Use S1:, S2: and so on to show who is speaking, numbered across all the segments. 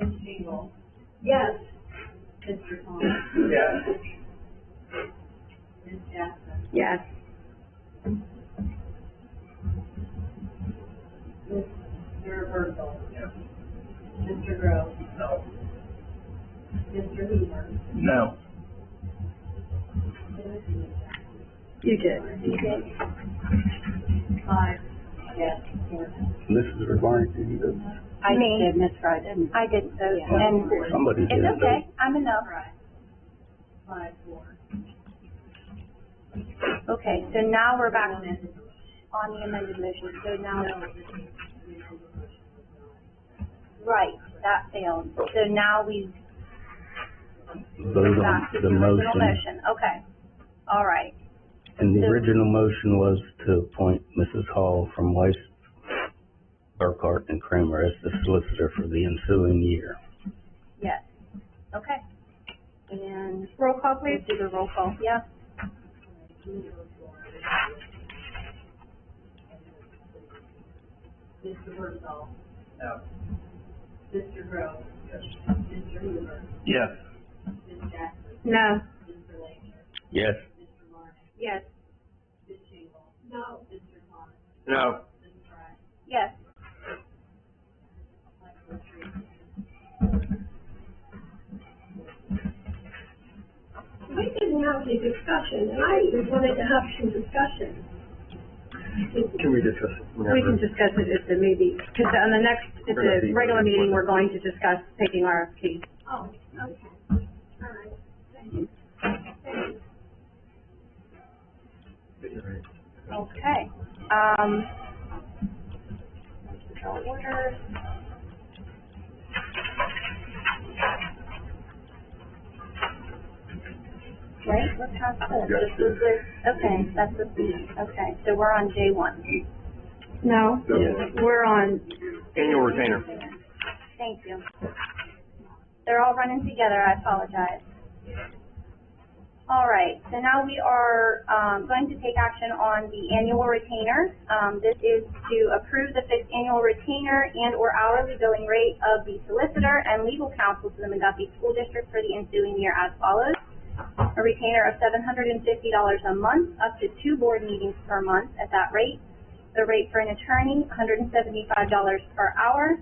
S1: Dingle. Yes. Mr. Thomas.
S2: Yes.
S1: Ms. Jackson.
S3: Yes.
S1: Mr. Berthold.
S2: Yes.
S1: Mr. Groves.
S2: No.
S1: Mr. Hoover.
S2: No.
S3: You did.
S1: Five. Yes. Four.
S4: Mrs. Rebarney, did you go?
S5: I
S6: Me.
S5: did, Ms. Fryden.
S6: I did those, and
S4: Somebody did.
S6: it's okay, I'm enough.
S1: Right. Five, four.
S6: Okay, so now we're back on the amended motion, so now, right, that failed. So now we
S4: Vote on
S6: back to the
S4: the
S6: original
S4: motion.
S6: motion, okay. All right,
S4: And the original motion was to appoint Mrs. Hall from Weiss, Burkhart, and Kramer as the solicitor for the ensuing year.
S6: yes, okay. And roll call, please? Do the roll call. Yeah,
S1: Mr. Berthold.
S2: No.
S1: Mr. Groves.
S2: Yes.
S1: Mr. Hoover.
S2: Yes.
S1: Ms. Jackson.
S3: No.
S1: Mr. Langer.
S4: Yes.
S1: Mr. Martin.
S3: Yes.
S1: Ms. Shingle. No. Mr. Thomas.
S2: No.
S1: Ms. Fry.
S6: yes.
S1: Michael Tree.
S7: We didn't have any discussion, and I even wanted to have some discussion.
S2: Can we discuss?
S3: We can discuss it at the maybe, because on the next, at the regular meeting, we're going to discuss taking RFP.
S7: Oh, okay. All right.
S6: Okay, um. Order. Right, we're past this.
S2: Yes,
S6: This is the- Okay, that's the B, okay, so we're on J one.
S3: No, we're on,
S2: Annual retainer.
S6: Thank you. They're all running together, I apologize. All right, so now we are, um, going to take action on the annual retainer. Um, this is to approve the fixed annual retainer and or hourly billing rate of the solicitor and legal counsel to the McGuffey School District for the ensuing year as follows. A retainer of seven hundred and fifty dollars a month, up to two board meetings per month at that rate. The rate for an attorney, hundred and seventy-five dollars per hour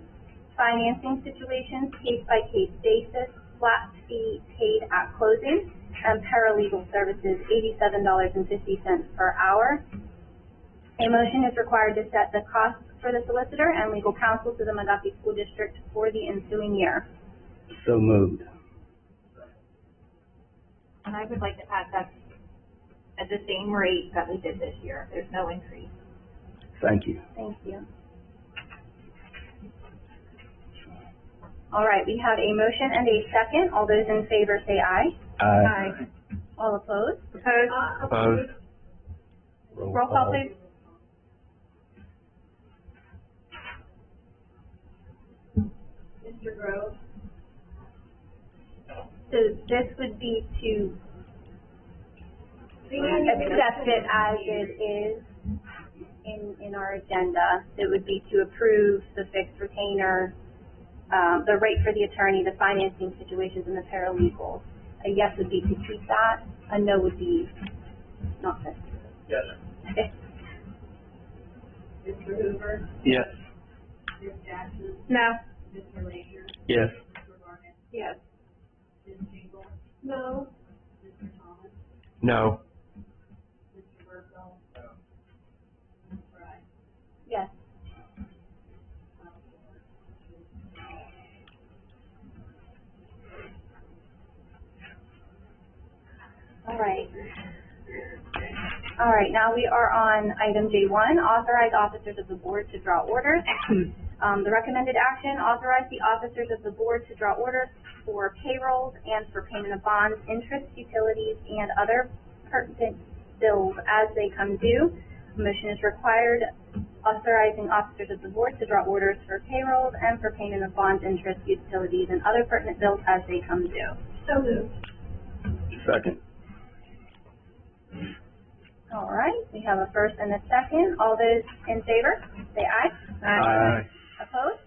S6: financing situations, case-by-case basis, flat fee paid at closing, and paralegal services, eighty-seven dollars and fifty cents per hour. A motion is required to set the cost for the solicitor and legal counsel to the Montgomery School District for the ensuing year.
S4: So moved.
S8: And I would like to add that's at the same rate that we did this year. There's no increase.
S4: Thank you.
S6: Thank you. All right, we have a motion and a second. All those in favor say aye.
S4: Aye.
S6: All opposed?
S3: opposed?
S7: Uh,
S2: Opposed?
S4: Oh,
S6: Roll call, please.
S1: Mr. Groves.
S6: So this would be to
S7: the end of the-
S6: accept it as it is in, in our agenda. It would be to approve the fixed retainer, um, the rate for the attorney, the financing situations, and the paralegals. A yes would be to keep that, a no would be not this.
S2: Yes.
S1: Mr. Hoover.
S2: Yes.
S1: Ms. Jackson.
S3: No.
S1: Mr. Langer.
S4: Yes.
S1: Mr. Martin.
S3: Yes.
S1: Ms. Shingle.
S7: No,
S1: Mr. Thomas.
S2: No.
S1: Mr. Berthold. Ms. Fry.
S6: Yes. All right. All right, now we are on item J one, authorize officers of the board to draw orders. Um, the recommended action, authorize the officers of the board to draw orders for payrolls and for payment of bonds, interest, utilities, and other pertinent bills as they come due. Motion is required authorizing officers of the board to draw orders for payrolls and for payment of bonds, interest, utilities, and other pertinent bills as they come due.
S7: so moved.
S4: Second.
S6: All right, we have a first and a second. All those in favor, say aye.
S4: Aye.
S6: Opposed?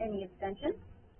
S6: Any abstentions?